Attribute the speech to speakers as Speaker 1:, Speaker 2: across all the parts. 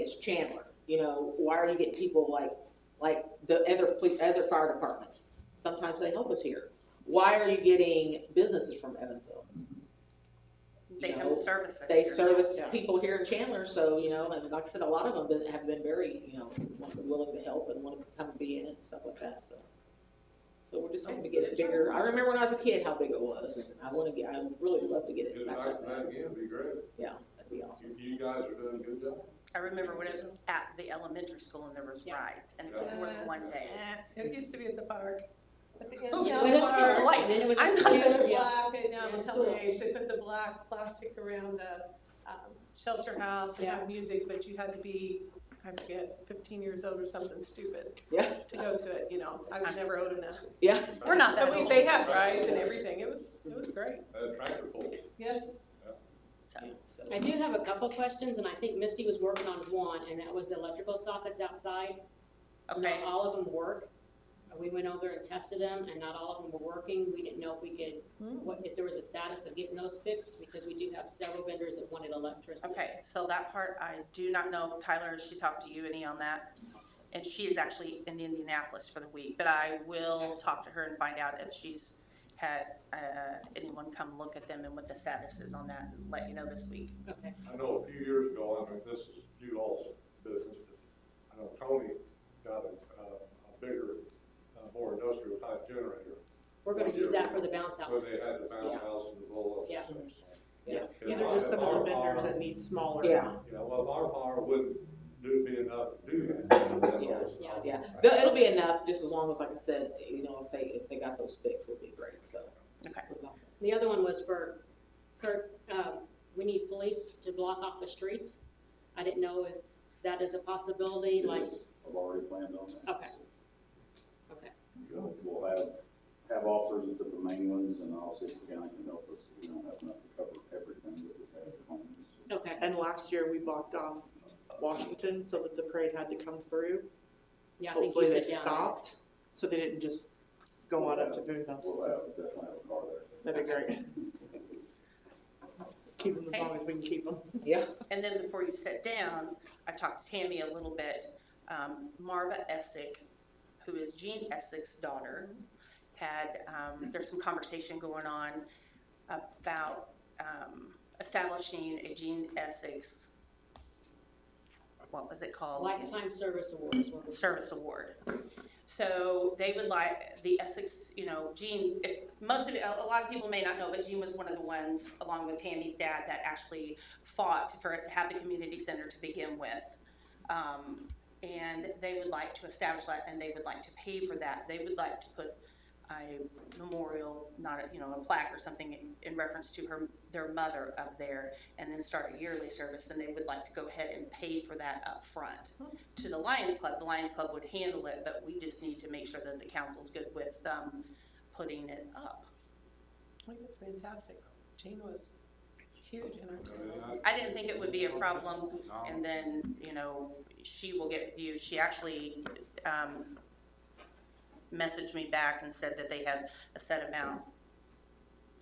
Speaker 1: it's Chandler, you know, why are you getting people like, like the other police, other fire departments? Sometimes they help us here. Why are you getting businesses from Evansville?
Speaker 2: They
Speaker 1: No,
Speaker 2: have services.
Speaker 1: They
Speaker 2: here.
Speaker 1: service
Speaker 2: Yeah.
Speaker 1: people here in Chandler, so, you know, and like I said, a lot of them been- have been very, you know, want- willing to help and want to come be in and stuff like that, so. So we're just hoping to get it bigger. I remember when I was a kid how big it was, and I want to get, I would really love to get
Speaker 3: Get
Speaker 1: it
Speaker 3: it
Speaker 1: back
Speaker 3: back
Speaker 1: up.
Speaker 3: to that again, it'd be great.
Speaker 1: Yeah, that'd be awesome.
Speaker 3: You, you guys are doing a good job.
Speaker 2: I remember when it was at the elementary school and there was rides and it was more than one day.
Speaker 4: Eh, It used to be at the park. At the end
Speaker 2: Oh,
Speaker 4: of
Speaker 2: yeah,
Speaker 4: the
Speaker 2: it's
Speaker 4: park.
Speaker 2: like- I'm
Speaker 4: They
Speaker 2: not-
Speaker 4: put the
Speaker 1: Yeah.
Speaker 4: black, and um, now I'm
Speaker 1: it's
Speaker 4: telling
Speaker 1: cool.
Speaker 4: you, they should put the black plastic around the um, shelter house and have music, but you had to be, I forget, fifteen years old or something stupid
Speaker 1: Yeah,
Speaker 4: to go to it, you know, I was never old enough.
Speaker 1: yeah,
Speaker 2: We're not that
Speaker 4: But we,
Speaker 2: old.
Speaker 4: they had rides and everything, it was, it was great,
Speaker 3: Uh, tractor pull.
Speaker 4: yes.
Speaker 2: So,
Speaker 1: so.
Speaker 5: I do have a couple questions, and I think Misty was working on one, and that was the electrical sockets outside. Not
Speaker 2: Okay,
Speaker 5: all of them work. Uh, We went over and tested them, and not all of them were working. We didn't know if we could,
Speaker 4: Hmm.
Speaker 5: what, if there was a status of getting those fixed, because we do have several vendors that wanted electricity.
Speaker 2: okay, so that part, I do not know, Tyler, has she talked to you any on that? And she is actually in Indianapolis for the week, but I will talk to her and find out if she's had, uh, anyone come look at them and what the status is on that and let you know this week.
Speaker 5: Okay.
Speaker 3: I know a few years ago, I mean, this is you all's business, but I know Tony got a, uh, a bigger, uh, more industrial type generator.
Speaker 5: We're gonna use that for the bounce
Speaker 3: Where they uh,
Speaker 5: houses.
Speaker 3: had the bounce
Speaker 5: Yeah.
Speaker 3: house and the roll up.
Speaker 5: Yeah.
Speaker 1: Yeah.
Speaker 6: These are just some of the vendors that need smaller.
Speaker 1: Yeah,
Speaker 3: You know, well, if our power wouldn't do, be enough to do that. then that
Speaker 1: Yeah,
Speaker 3: was-
Speaker 5: yeah,
Speaker 1: yeah. They'll- It'll be enough, just as long as, like I said, you know, if they, if they got those fixed, it'll be great, so. um,
Speaker 2: Okay.
Speaker 5: The other one was for Kirk, um, we need police to block off the streets. I didn't know if that is a possibility, like,
Speaker 7: Yes, I've already planned on that.
Speaker 5: Okay. Okay.
Speaker 3: Good.
Speaker 7: We'll have, have officers at the main ones and I'll see if the county can help us. We don't have enough to cover everything that we have at home.
Speaker 5: okay,
Speaker 6: And last year, we blocked off Washington so that the parade had to come through.
Speaker 5: yeah, I think you
Speaker 6: Hopefully, they
Speaker 5: said down. there.
Speaker 6: stopped, so they didn't just go on up to Boonville.
Speaker 7: We'll
Speaker 6: So
Speaker 7: have, definitely have a car there.
Speaker 6: That'd be great. Keep them as long as we can keep them.
Speaker 1: Yeah,
Speaker 2: And then before you sit down, I talked to Tammy a little bit. Um, Marva Essick, who is Jean Essick's daughter, had, um, there's some conversation going on about, um, establishing a Jean Essex, what was it called?
Speaker 5: Lifetime Service Award is what we-
Speaker 2: Service Award. So they would like, the Essex, you know, Jean, if, most of, a lot of people may not know, but Jean was one of the ones, along with Tammy's dad, that actually fought for us to have the community center to begin with. Um, and they would like to establish that, and they would like to pay for that. They would like to put a memorial, not, a you know, a plaque or something in- in reference to her, their mother up there, and then start a yearly service, and they would like to go ahead and pay for that up front to the Lions Club, the Lions Club would handle it, but we just need to make sure that the council's good with, um, putting it up.
Speaker 4: I think it's fantastic, Jane was huge in our town.
Speaker 3: I mean,
Speaker 2: I didn't think it would be a problem,
Speaker 3: I-
Speaker 2: and then, you know, she will get you, she actually, um, messaged me back and said that they had a set amount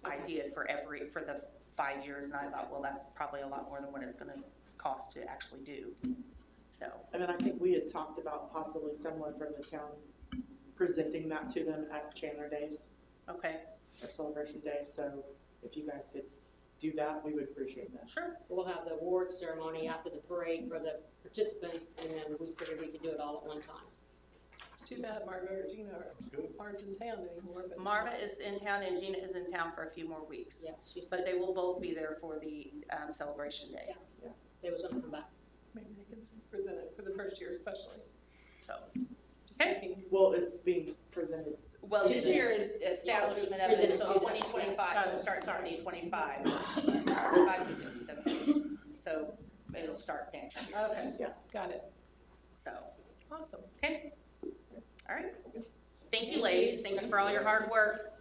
Speaker 2: idea for every, for the five years, and I thought, well, that's probably a lot more than what it's gonna cost to actually do, so.
Speaker 6: And then I think we had talked about possibly someone from the town presenting that to them at Chandler Days
Speaker 2: Okay,
Speaker 6: or Celebration Day. So if you guys could do that, we would appreciate that.
Speaker 2: sure,
Speaker 5: We'll have the award ceremony after the parade for the participants, and then we figured we could do it all at one time.
Speaker 4: It's too bad Marva or Gina
Speaker 3: Good.
Speaker 4: aren't in town anymore, but.
Speaker 2: Marva is in town and Gina is in town for a few more weeks.
Speaker 5: Yeah, she said
Speaker 2: But they will both be there for the um, celebration day,
Speaker 5: they was gonna come back.
Speaker 4: Maybe they can present it for the first year especially.
Speaker 2: so.
Speaker 4: Just
Speaker 2: Okay.
Speaker 4: thinking,
Speaker 6: Well, it's being presented
Speaker 2: Well, this year is establishment of it, so twenty twenty-five, it'll start in twenty twenty-five. So it'll start next year,
Speaker 4: Okay,
Speaker 6: Yeah.
Speaker 4: got it.
Speaker 2: so,
Speaker 4: Awesome.
Speaker 2: okay? All right. Thank you, ladies, thank you for all your hard work.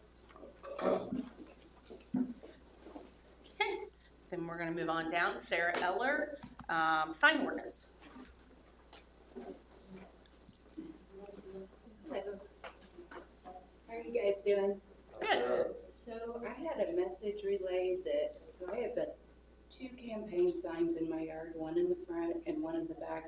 Speaker 2: Okay, then we're gonna move on down, Sarah Eller, um, sign ordinance.
Speaker 8: Hello. How are you guys doing?
Speaker 2: Good.
Speaker 8: So I had a message relayed that, so I have uh, two campaign signs in my yard, one in the front and one in the back